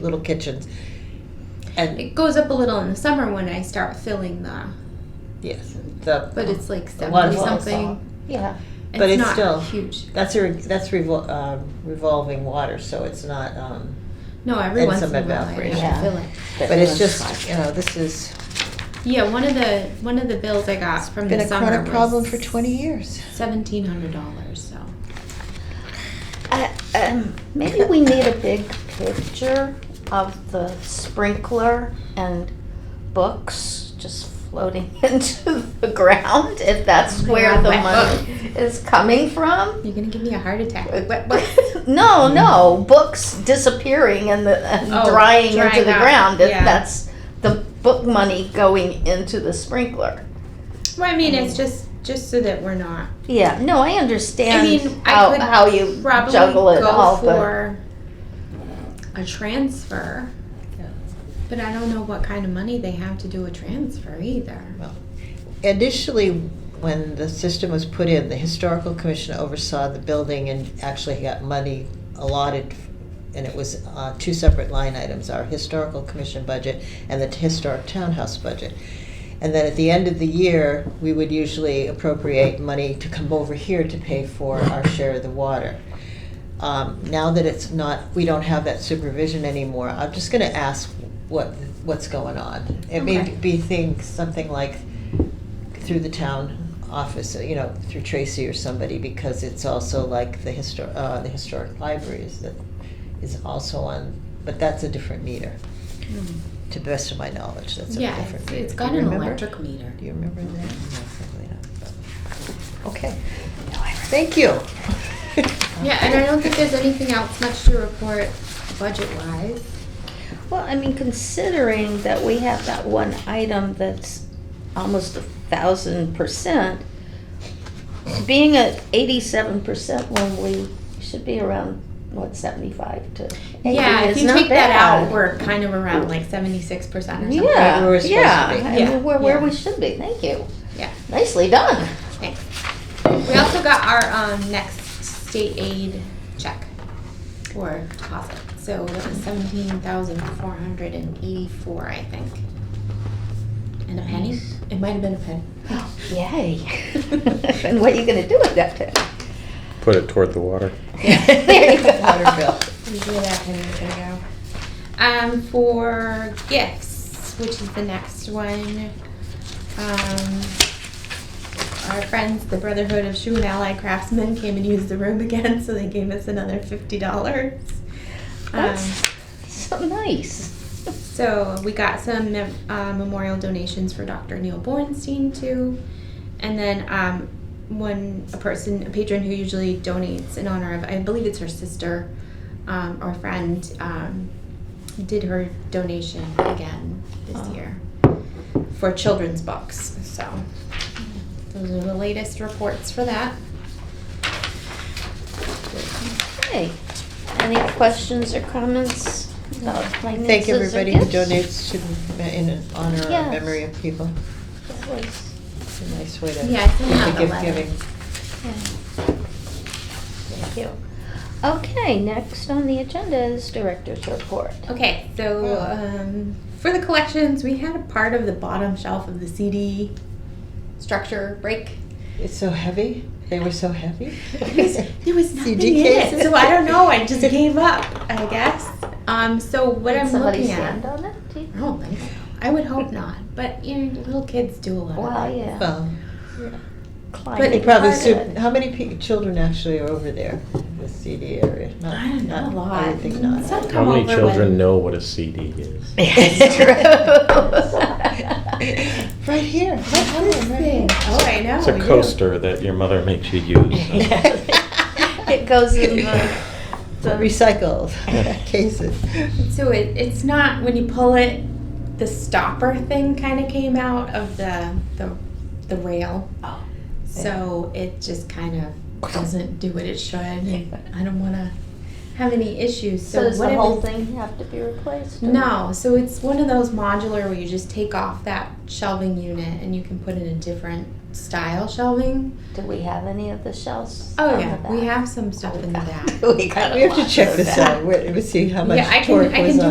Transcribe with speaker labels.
Speaker 1: little kitchens. And
Speaker 2: It goes up a little in the summer when I start filling the,
Speaker 1: yes, the
Speaker 2: but it's like
Speaker 1: the one-
Speaker 2: seventy something.
Speaker 1: Yeah, But it's
Speaker 2: not
Speaker 1: still-
Speaker 2: huge.
Speaker 1: that's a re- that's revol- um, revolving water, so it's not. Um,
Speaker 2: No, every
Speaker 1: and
Speaker 2: once
Speaker 1: some
Speaker 2: in a while I
Speaker 1: evaporation.
Speaker 2: have to fill it.
Speaker 1: but it's
Speaker 3: everyone's
Speaker 1: just
Speaker 3: fine.
Speaker 1: you know this is
Speaker 2: Yeah, one of the one of the bills I got from
Speaker 1: been
Speaker 2: the
Speaker 1: a
Speaker 2: summer
Speaker 1: chronic
Speaker 2: was
Speaker 1: problem for twenty years.
Speaker 2: Seventeen hundred dollars. So
Speaker 3: Uh, um, maybe we need a big picture of the sprinkler and books just floating into the ground if that's
Speaker 2: Oh my
Speaker 3: where
Speaker 2: God,
Speaker 3: the
Speaker 2: wet
Speaker 3: money is coming from.
Speaker 2: you're gonna give me a heart attack. with wet books.
Speaker 3: no, no, books disappearing and, the, and
Speaker 2: Oh,
Speaker 3: drying
Speaker 2: drying
Speaker 3: into the
Speaker 2: up,
Speaker 3: ground. If
Speaker 2: yeah.
Speaker 3: That's the book money going into the sprinkler.
Speaker 2: well, I mean, it's just just so that we're not.
Speaker 3: Yeah, no, I understand
Speaker 2: I mean,
Speaker 3: how,
Speaker 2: I could
Speaker 3: how you
Speaker 2: probably
Speaker 3: juggle it
Speaker 2: go
Speaker 3: all, but
Speaker 2: for a transfer.
Speaker 1: Yeah.
Speaker 2: But I don't know what kind of money they have to do a transfer either.
Speaker 1: Initially, when the system was put in, the historical commission oversaw the building and actually got money allotted, and it was uh, two separate line items: our historical commission budget and the historic townhouse budget. And then at the end of the year, we would usually appropriate money to come over here to pay for our share of the water. Um, now that it's not, we don't have that supervision anymore. I'm just going to ask what what's going on. It may
Speaker 2: Okay.
Speaker 1: be things something like through the town office, you know, through Tracy or somebody, because it's also like the histor- uh, the historic libraries that is also on, but that's a different meter. To the best of my knowledge, Hmm, that's a
Speaker 2: yeah,
Speaker 1: different
Speaker 2: it's,
Speaker 1: meter.
Speaker 2: it's
Speaker 1: Do
Speaker 2: got
Speaker 1: you
Speaker 2: an
Speaker 1: remember?
Speaker 2: electric Mm-hmm. meter.
Speaker 1: Do you remember that? No, probably not, but- Okay. Thank you.
Speaker 2: Yeah, and I don't think there's anything else much to report budget wise.
Speaker 3: Well, I mean, considering that we have that one item that's almost a thousand percent, being at eighty-seven percent when we should be around, what, seventy-five to eighty
Speaker 2: Yeah, if
Speaker 3: is
Speaker 2: you
Speaker 3: not
Speaker 2: take that
Speaker 3: bad.
Speaker 2: out, we're kind of around like seventy-six percent or something.
Speaker 3: Yeah,
Speaker 1: where we're supposed to
Speaker 3: yeah,
Speaker 1: be.
Speaker 3: I
Speaker 2: Yeah,
Speaker 3: mean, we're where
Speaker 2: yeah.
Speaker 3: we should be, thank you.
Speaker 2: Yeah.
Speaker 3: Nicely done.
Speaker 2: Thanks. We also got our um, next state aid check or deposit. So that was seventeen thousand four hundred and eighty-four, I think. And a penny?
Speaker 3: Nice.
Speaker 2: It might have been a penny.
Speaker 3: Yay. And what are you gonna do with that then?
Speaker 4: Put it toward the water.
Speaker 3: There you go.
Speaker 1: Water bill.
Speaker 2: Usually that penny's gonna go. Um, for gifts, which is the next one. Um, our friends, the Brotherhood of Shoe and Ally Craftsmen, came and used the room again, so they gave us another fifty dollars. Um,
Speaker 3: That's so nice.
Speaker 2: so we got some mem- uh, memorial donations for Dr. Neil Bornstein too, and then um, one a person a patron who usually donates in honor of I believe it's her sister um, or friend um, did her donation again this
Speaker 3: Oh.
Speaker 2: year for children's books. So those are the latest reports for that.
Speaker 3: Okay. Any questions or comments about finances
Speaker 1: Thank
Speaker 3: or
Speaker 1: everybody who
Speaker 3: gifts?
Speaker 1: donates to, in honor or
Speaker 3: Yes.
Speaker 1: memory of people.
Speaker 3: That was-
Speaker 1: It's a nice way to
Speaker 2: Yeah, I sent
Speaker 1: to
Speaker 2: out the
Speaker 1: give
Speaker 2: letter.
Speaker 1: giving.
Speaker 3: yeah. Thank you. Okay, next on the agenda is director's report.
Speaker 2: Okay, so
Speaker 3: Oh.
Speaker 2: um, for the collections, we had a part of the bottom shelf of the CD structure break.
Speaker 1: It's so heavy. They were so heavy.
Speaker 2: It was, there was nothing
Speaker 1: CD
Speaker 2: in it,
Speaker 1: cases.
Speaker 2: so I don't know. I just gave up, I guess. Um, so what
Speaker 3: Did
Speaker 2: I'm
Speaker 3: somebody
Speaker 2: looking
Speaker 3: stand
Speaker 2: at,
Speaker 3: on it? Do you-
Speaker 2: I don't think so. I would hope not, but you know, little kids do a lot.
Speaker 3: Well,
Speaker 2: of that.
Speaker 3: yeah.
Speaker 1: Well,
Speaker 3: climbing
Speaker 1: but
Speaker 2: But
Speaker 1: you probably
Speaker 3: part of
Speaker 1: sup-
Speaker 3: it.
Speaker 1: how many pe- children actually are over there? in The CD area. Not,
Speaker 2: I don't know.
Speaker 1: not-
Speaker 2: a lot.
Speaker 1: I would think not.
Speaker 2: Some
Speaker 4: How
Speaker 2: come
Speaker 4: many
Speaker 2: over
Speaker 4: children
Speaker 2: when-
Speaker 4: know what a CD is?
Speaker 3: It's true.
Speaker 1: Right here. Right
Speaker 2: What is
Speaker 1: here, right here.
Speaker 2: this? Oh, I know.
Speaker 4: It's a
Speaker 2: yeah.
Speaker 4: coaster that your mother makes you use.
Speaker 2: Oh.
Speaker 3: It goes in the, the
Speaker 1: Recycled cases.
Speaker 2: So it, it's not when you pull it, the stopper thing kind of came out of the the, the rail.
Speaker 3: Oh.
Speaker 2: So it just kind of doesn't do what it should. and I don't want to have any issues.
Speaker 3: So does
Speaker 2: what
Speaker 3: the
Speaker 2: if
Speaker 3: whole
Speaker 2: it's-
Speaker 3: thing have to be replaced? or-
Speaker 2: No, so it's one of those modular where you just take off that shelving unit and you can put in a different style shelving.
Speaker 3: Do we have any of the shells?
Speaker 2: Oh
Speaker 3: on the
Speaker 2: yeah, we
Speaker 3: back?
Speaker 2: have some stuff in the back.
Speaker 3: We got a
Speaker 1: We have to
Speaker 3: lot
Speaker 1: check
Speaker 3: of
Speaker 1: this
Speaker 3: that.
Speaker 1: out. Wait, Let's see how much
Speaker 2: Yeah, I can-
Speaker 1: torque
Speaker 2: I can
Speaker 1: was
Speaker 2: do
Speaker 1: on